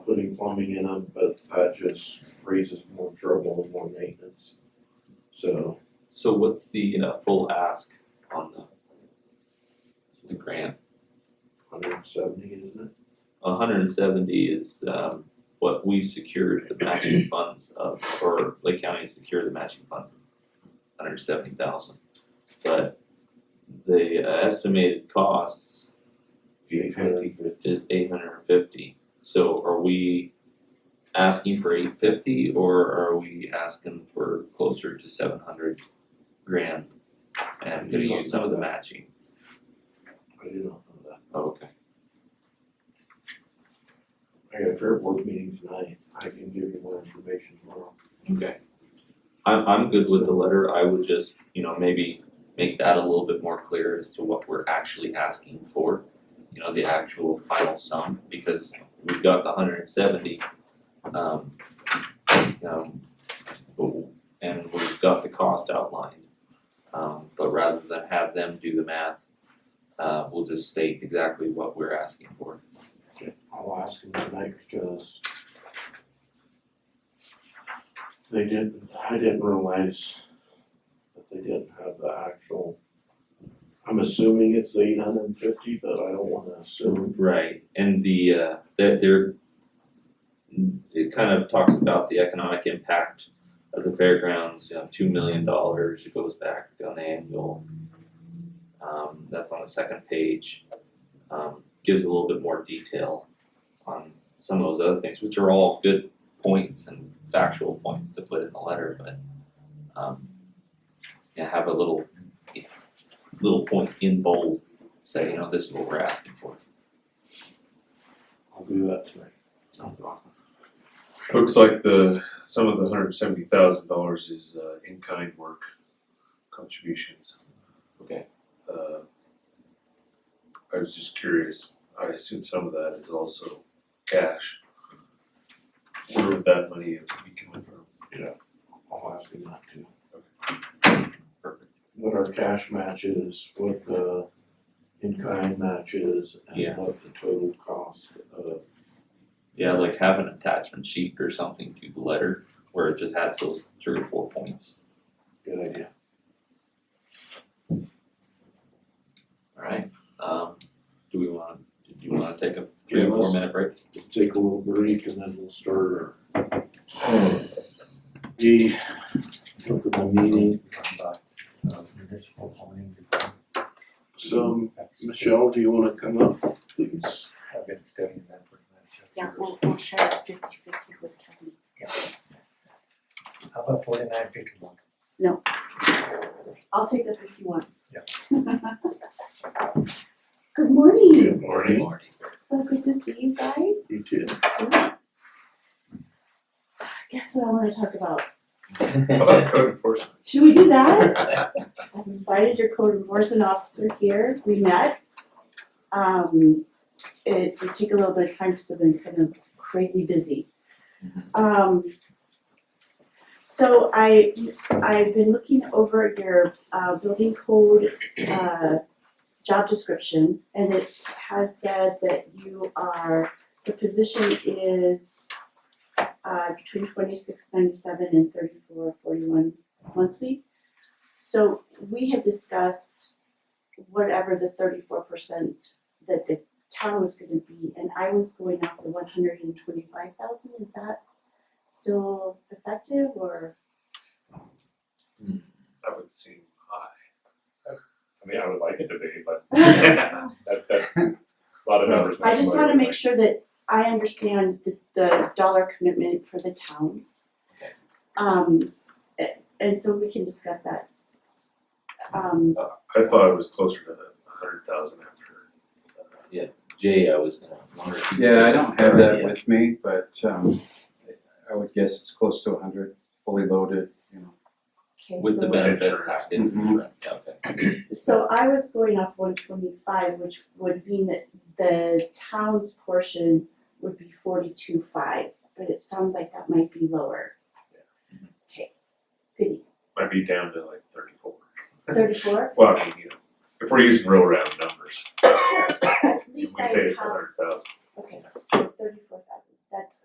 plumbing in them, but that just raises more trouble and more maintenance. So, So what's the uh full ask on the the grant? hundred and seventy, isn't it? A hundred and seventy is um what we secured the matching funds of, or Lake County secured the matching funds. Hundred and seventy thousand, but the uh, estimated costs Eight hundred and fifty. is eight hundred and fifty. So are we asking for eight fifty or are we asking for closer to seven hundred grand? And gonna use some of the matching, I did not know that. Oh, okay. I got a fair board meeting tonight. I can give you more information tomorrow. Okay. I'm I'm good with the letter, I would just, you know, maybe make that a little bit more clear as to what we're actually asking for. You know, the actual final sum, because we've got the hundred and seventy. Um, um, but- and we've got the cost outlined. Um, but rather than have them do the math, uh, we'll just state exactly what we're asking for. I'll ask him tonight because they didn't, I didn't realize that they didn't have the actual, I'm assuming it's eight hundred and fifty, but I don't wanna assume. Right, and the uh that there it kind of talks about the economic impact of the fairgrounds, you know, two million dollars it goes back on the annual. Um that's on the second page. Um gives a little bit more detail on some of those other things, which are all good points and factual points to put in the letter, but um yeah, have a little little point in bold, say, you know, this is what we're asking for. I'll do that tonight. Sounds awesome. Looks like the, some of the hundred seventy thousand dollars is uh, in-kind work contributions. Okay. Uh, I was just curious, I assume some of that is also cash. Where would that money be coming from? I'll ask him that too. Perfect. What our cash match is, what the in-kind match is, Yeah. and what the total cost of, Yeah, like have an attachment sheet or something to the letter where it just has those three or four points. good idea. Alright, um, do we wanna, do you wanna take a three or Yeah, let's- four minute break? Let's take a little break and then we'll start our. um, The, look at the meeting, Um, so Michelle, do you wanna come up, please? I've been studying that for the last Yeah, several years. we'll, we'll share it fifty-fifty with Kevin. How about forty-nine fifty-one? I'll take the fifty-one. Yeah. Good morning, Good morning. so good to see you guys. You too. Guess what I wanna talk about? How about code enforcement? Should we do that? I've invited your code enforcement officer here, we met. Um, it did take a little bit of time, because I've been kind of crazy busy. Um, so I, I've been looking over your, uh, building code, uh, job description, and it has said that you are, the position is, uh, between twenty-six ninety-seven and thirty-four forty-one monthly. So we had discussed whatever the thirty-four percent that the town was gonna be, and I was going off the one hundred and twenty-five thousand, is that still effective or? That would seem high. I mean, I would like it to be, but I that, that's a lot of numbers. just wanna make sure that I understand the, the dollar commitment for the town. Okay. Um, a- and so we can discuss that. Um, I thought it was closer to the hundred thousand after. uh, Jay, I was gonna wonder if you. Yeah, I don't have that Yeah. with me, but um I would guess it's close to hundred, fully loaded, you know. okay, so. With the benefit Insurance. package, Mhm. Yeah, okay. So I was going off one twenty-five, which would mean that the town's portion would be forty-two five, but it sounds like that might be lower. Okay, goody, Might be down to like thirty-four. thirty-four, Well, I mean, you know, if we're using real round numbers, at we least I say it's have hundred